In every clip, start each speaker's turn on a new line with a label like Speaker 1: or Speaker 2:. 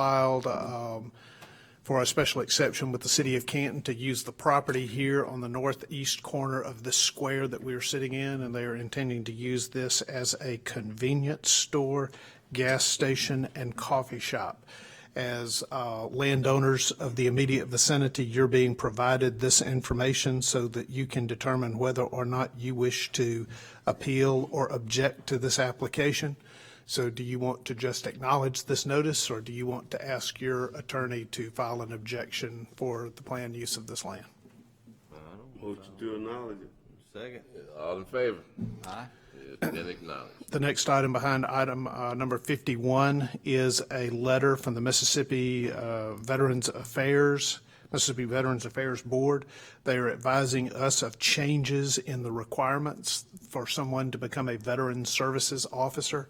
Speaker 1: filed um, for a special exception with the city of Canton to use the property here on the northeast corner of this square that we are sitting in, and they are intending to use this as a convenience store, gas station, and coffee shop. As uh, landowners of the immediate vicinity, you're being provided this information so that you can determine whether or not you wish to appeal or object to this application. So do you want to just acknowledge this notice, or do you want to ask your attorney to file an objection for the planned use of this land?
Speaker 2: Motion to acknowledge it.
Speaker 3: Second.
Speaker 4: All in favor?
Speaker 3: Aye.
Speaker 4: It's been acknowledged.
Speaker 1: The next item behind item uh, number 51 is a letter from the Mississippi uh, Veterans Affairs, Mississippi Veterans Affairs Board. They are advising us of changes in the requirements for someone to become a Veteran Services Officer.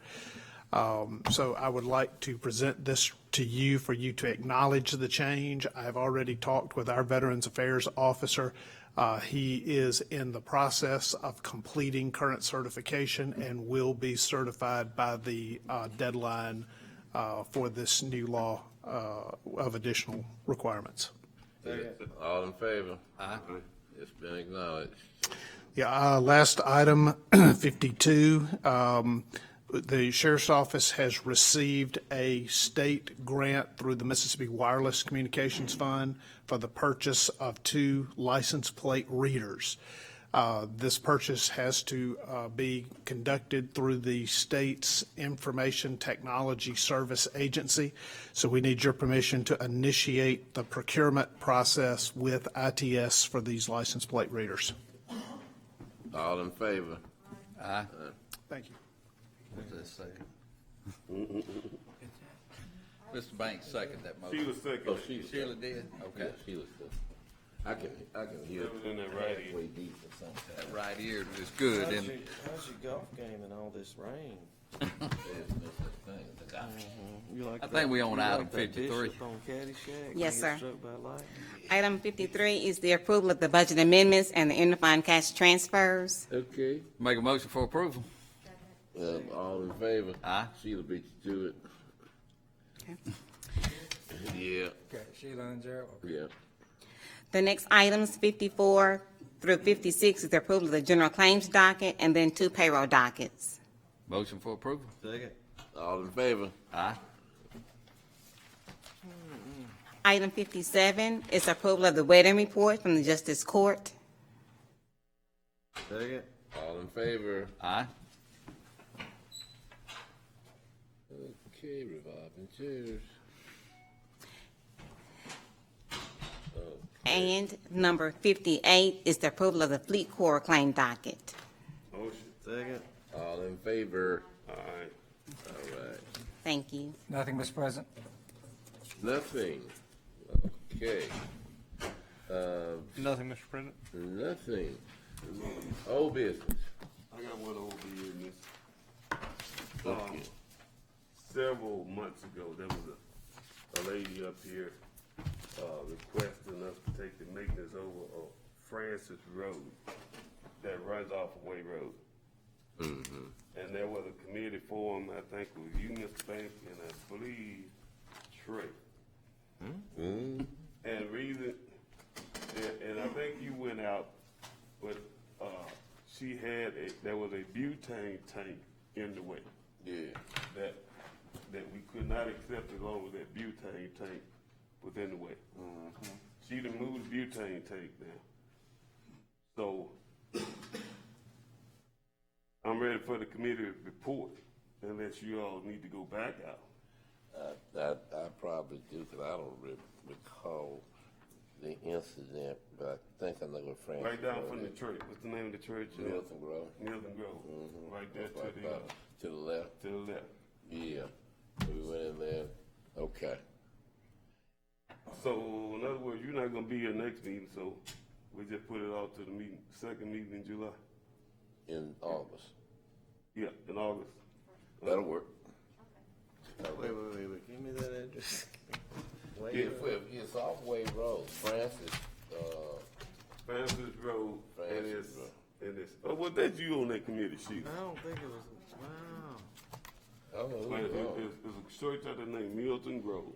Speaker 1: Um, So I would like to present this to you for you to acknowledge the change. I've already talked with our Veterans Affairs Officer. Uh, He is in the process of completing current certification and will be certified by the uh, deadline uh, for this new law uh, of additional requirements.
Speaker 4: All in favor?
Speaker 3: Aye.
Speaker 4: It's been acknowledged.
Speaker 1: Yeah, uh, last item, 52. um, The sheriff's office has received a state grant through the Mississippi Wireless Communications Fund for the purchase of two license plate readers. Uh, This purchase has to uh, be conducted through the state's Information Technology Service Agency. So we need your permission to initiate the procurement process with ITS for these license plate readers.
Speaker 4: All in favor?
Speaker 3: Aye.
Speaker 4: Uh,
Speaker 1: Thank you.
Speaker 3: Who's that second? Mr. Banks second that
Speaker 2: She
Speaker 3: motion.
Speaker 2: was second.
Speaker 4: Oh, she was.
Speaker 3: Sheila did?
Speaker 4: Yeah,
Speaker 3: Okay.
Speaker 4: she was. good. I can, I can hear.
Speaker 2: That was in that right ear.
Speaker 4: Way deep or something.
Speaker 3: That right ear was good,
Speaker 5: How's
Speaker 3: and
Speaker 5: your, how's your golf game in all this rain?
Speaker 4: There's no such thing as a doctor.
Speaker 5: You like
Speaker 3: I think we own
Speaker 5: you like
Speaker 3: item
Speaker 5: that
Speaker 3: 53.
Speaker 5: Bishop on Caddyshack when
Speaker 6: Yes,
Speaker 5: he
Speaker 6: sir.
Speaker 5: got struck by lightning?
Speaker 6: Item 53 is the approval of the budget amendments and the interfund cash transfers.
Speaker 4: Okay.
Speaker 3: make a motion for approval.
Speaker 4: Um, all in favor?
Speaker 3: Aye.
Speaker 4: Sheila beat you to it. Yeah,
Speaker 7: Okay, Sheila and Gerald.
Speaker 4: yeah.
Speaker 6: The next items, 54 through 56, is the approval of the general claims docket and then two payroll dockets.
Speaker 3: Motion for approval.
Speaker 5: Second.
Speaker 4: All in favor?
Speaker 3: Aye.
Speaker 6: Item 57 is approval of the wedding report from the Justice Court.
Speaker 5: Second.
Speaker 4: All in favor?
Speaker 3: Aye.
Speaker 4: Okay, revolving chairs.
Speaker 6: And number 58 is the approval of the Fleet Corps claim docket.
Speaker 5: Oh,
Speaker 2: Motion.
Speaker 5: Second.
Speaker 4: All in favor?
Speaker 2: All right.
Speaker 4: All right.
Speaker 6: Thank you.
Speaker 7: Nothing, Mr. President.
Speaker 4: Nothing. Okay.
Speaker 8: Nothing, Mr. President.
Speaker 4: Nothing. Old business.
Speaker 2: I got one over here, miss.
Speaker 4: Okay.
Speaker 2: Several months ago, there was a, a lady up here, uh, requesting us to take the maintenance over of Francis Road that runs off of Way Road.
Speaker 4: Mm-hmm.
Speaker 2: And there was a committee forum, I think, with you, Mr. Bank, and I believe Trey.
Speaker 4: Hmm?
Speaker 2: And reason, and, and I think you went out, but, uh, she had a, there was a butane tank in the way
Speaker 4: Yeah.
Speaker 2: that, that we could not accept as long as that butane tank was in the way. She done moved the butane tank now. So I'm ready for the committee report unless you all need to go back out.
Speaker 4: I, I, I probably do, 'cause I don't re- recall the incident, but I think I know what Francis.
Speaker 2: Right down
Speaker 4: Road
Speaker 2: from the
Speaker 4: is.
Speaker 2: church, what's the name of the church? uh,
Speaker 4: Milton Grove. Mm-hmm.
Speaker 2: Milton Grove, right there
Speaker 4: Right
Speaker 2: to the,
Speaker 4: about
Speaker 2: uh,
Speaker 4: To the left,
Speaker 2: to the left.
Speaker 4: yeah. We went in there, okay.
Speaker 2: So in other words, you're not gonna be here next meeting, so we just put it off to the meeting, second meeting in July,
Speaker 4: In August.
Speaker 2: yeah, in August.
Speaker 4: That'll work.
Speaker 5: Oh, Wait, wait, wait, wait. Give me that address. Wait,
Speaker 4: If, if it's off Wade Road, Francis, uh,
Speaker 2: Francis Road, and it's,
Speaker 4: Francis
Speaker 2: and it's, oh, well, that's you on that committee, she.
Speaker 5: I don't think it was, wow.
Speaker 4: I don't know. who
Speaker 2: It's,
Speaker 4: it was.
Speaker 2: it's a church out there named Milton Grove.